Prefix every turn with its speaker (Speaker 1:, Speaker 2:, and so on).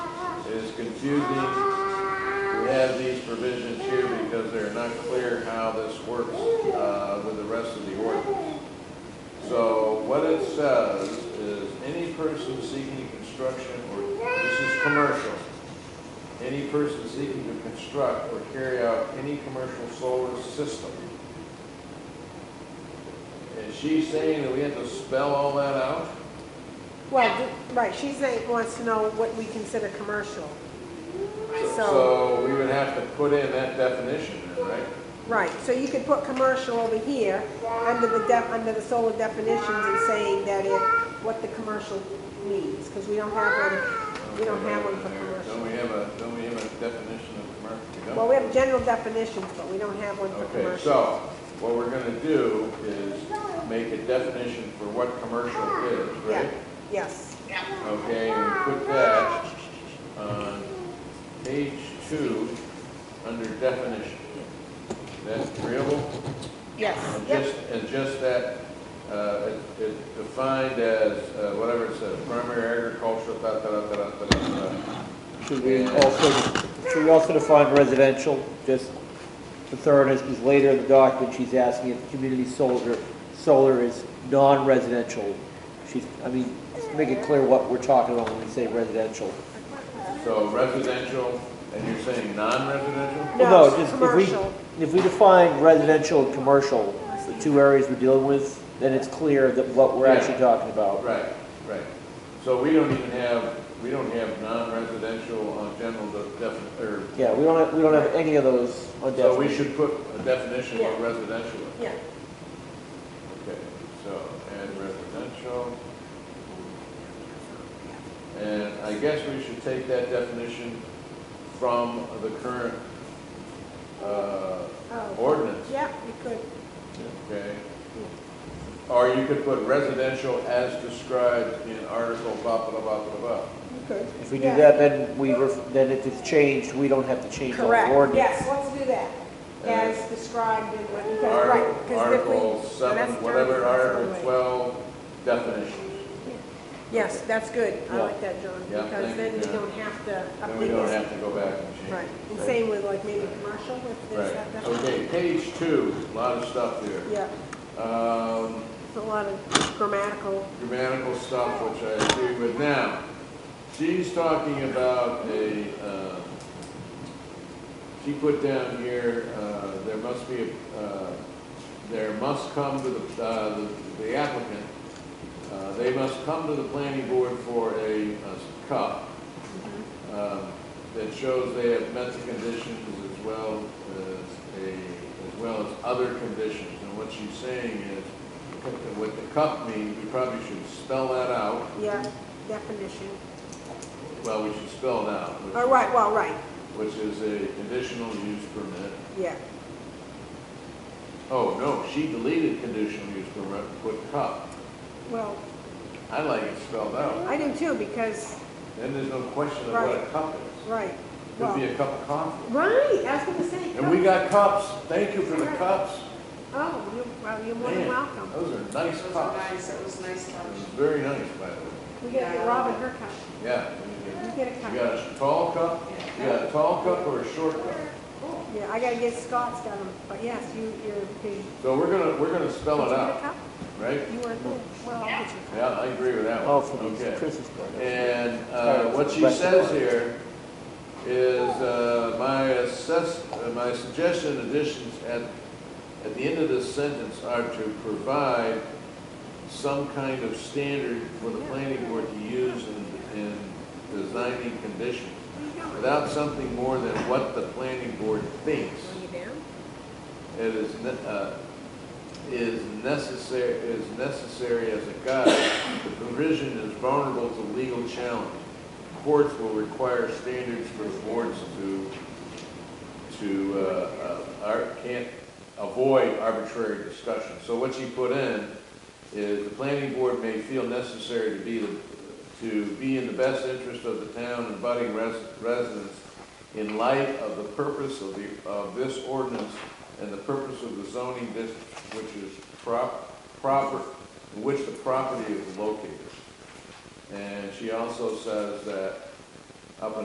Speaker 1: confusing. We have these provisions here because they're not clear how this works uh, with the rest of the ordinance. So what it says is, any person seeking construction or, this is commercial, any person seeking to construct or carry out any commercial solar system. Is she saying that we have to spell all that out?
Speaker 2: Well, th- right, she's saying, wants to know what we consider commercial. So,
Speaker 1: So we would have to put in that definition, then, right?
Speaker 2: right, so you could put commercial over here, under the def, under the solar definitions and saying that it, what the commercial means, because we don't have one, we don't have one for
Speaker 1: Don't we
Speaker 2: commercial.
Speaker 1: have a, don't we have a definition of commercial? We don't.
Speaker 2: Well, we have general definitions, but we don't have one for
Speaker 1: Okay,
Speaker 2: commercial.
Speaker 1: so what we're gonna do is make a definition for what commercial is,
Speaker 2: Yeah,
Speaker 1: right?
Speaker 2: yes,
Speaker 1: Okay, and we put that on page two, under definition. That's agreeable?
Speaker 2: yes,
Speaker 1: And
Speaker 2: yep,
Speaker 1: just, and just that, uh, it- it defined as, uh, whatever it says, primary agricultural, da, da, da, da, da, da, da.
Speaker 3: Should we also, should we also define residential, just for thoroughness, because later in the document, she's asking if community solar, solar is non-residential. She's, I mean, just make it clear what we're talking about when we say residential.
Speaker 1: So residential, and you're saying non-residential?
Speaker 2: No,
Speaker 3: Well,
Speaker 2: it's
Speaker 3: just if we-
Speaker 2: commercial.
Speaker 3: If we define residential and commercial, the two areas we're dealing with, then it's clear that what we're
Speaker 1: Yeah.
Speaker 3: actually talking about.
Speaker 1: Right, right. So we don't even have, we don't have non-residential on general de- defi- or,
Speaker 3: Yeah, we don't have, we don't have any of those on
Speaker 1: so we
Speaker 3: definition.
Speaker 1: should put a definition of what residential is.
Speaker 2: yeah,
Speaker 1: Okay, so add residential. And I guess we should take that definition from the current uh,
Speaker 2: Oh.
Speaker 1: ordinance,
Speaker 2: yeah, you could,
Speaker 1: okay? Or you could put residential as described in article blah, blah, blah, blah, blah.
Speaker 2: you could.
Speaker 3: If we do
Speaker 2: yeah.
Speaker 3: that, then we, ref- then if it's changed, we don't have to change the ordinance.
Speaker 2: Correct, yes, let's do that, as described in, what- because, right,
Speaker 1: Uh, Article-
Speaker 2: because if we.
Speaker 1: Article seven,
Speaker 2: that's
Speaker 1: whatever,
Speaker 2: John's
Speaker 1: article
Speaker 2: way.
Speaker 1: twelve, definitions.
Speaker 2: Yes, that's good, I
Speaker 3: Yeah.
Speaker 2: like that, John,
Speaker 1: Yeah,
Speaker 2: because
Speaker 1: thank
Speaker 2: then
Speaker 1: you,
Speaker 2: we
Speaker 1: John.
Speaker 2: don't have to
Speaker 1: Then we
Speaker 2: update
Speaker 1: don't
Speaker 2: this.
Speaker 1: have to go back and change.
Speaker 2: Right, and same with like maybe commercial, if there's that
Speaker 1: Right, okay,
Speaker 2: definition.
Speaker 1: page two, a lot of stuff there.
Speaker 2: Yeah,
Speaker 1: Um,
Speaker 2: it's a lot of grammatical,
Speaker 1: grammatical stuff, which I agree with. Now, she's talking about a, um, she put down here, uh, there must be, a, uh, there must come to the, uh, the- the applicant, uh, they must come to the planning board for a a cup um, that shows they have met the conditions as well as a, as well as other conditions. And what she's saying is, what the cup means, we probably should spell that out.
Speaker 2: yeah, definition.
Speaker 1: Well, we should spell it out,
Speaker 2: All
Speaker 1: which-
Speaker 2: right, well, right,
Speaker 1: which is a conditional use permit.
Speaker 2: yeah,
Speaker 1: Oh, no, she deleted conditional use permit, put cup.
Speaker 2: well,
Speaker 1: I like it spelled out.
Speaker 2: I do too, because,
Speaker 1: Then there's no question of what a cup is.
Speaker 2: right,
Speaker 1: Could be
Speaker 2: well,
Speaker 1: a cup of coffee.
Speaker 2: right, I was gonna say.
Speaker 1: And we got cups. Thank you for the cups.
Speaker 2: Oh, you're, well, you're more than
Speaker 1: Man,
Speaker 2: welcome.
Speaker 1: Those are nice
Speaker 4: Those are
Speaker 1: cups.
Speaker 4: nice, that was a nice
Speaker 1: It was
Speaker 4: touch.
Speaker 1: Very nice, by the way.
Speaker 2: We gotta get Robin her cup.
Speaker 1: Yeah.
Speaker 2: You get a cup.
Speaker 1: You got a tall cup? You got a tall cup or a short cup?
Speaker 2: Yeah, I gotta get Scott's got 'em, but yes, you, you're, you.
Speaker 1: So we're gonna, we're gonna spell it out, right?
Speaker 2: You were, well, I'll get you.
Speaker 1: Yeah, I agree with that one.
Speaker 3: Oh, for the
Speaker 1: Okay.
Speaker 3: Christmas program.
Speaker 1: And uh, what she says here is, uh, my assess, uh, my suggestion additions at, at the end of this sentence are to provide some kind of standard for the planning board to use in, in designing conditions,
Speaker 2: Where you going?
Speaker 1: without something more than what the planning board thinks.
Speaker 2: Going you down?
Speaker 1: It is, ne- uh, is necessary, is necessary as a guide. The provision is vulnerable to legal challenge. Courts will require standards for boards to, to, uh, uh, ar- can't avoid arbitrary discussion. So what you put in is the planning board may feel necessary to be, the- to be in the best interest of the town and budding res- residents in light of the purpose of the, of this ordinance and the purpose of the zoning district, which is prop, proper, in which the property is located. And she also says that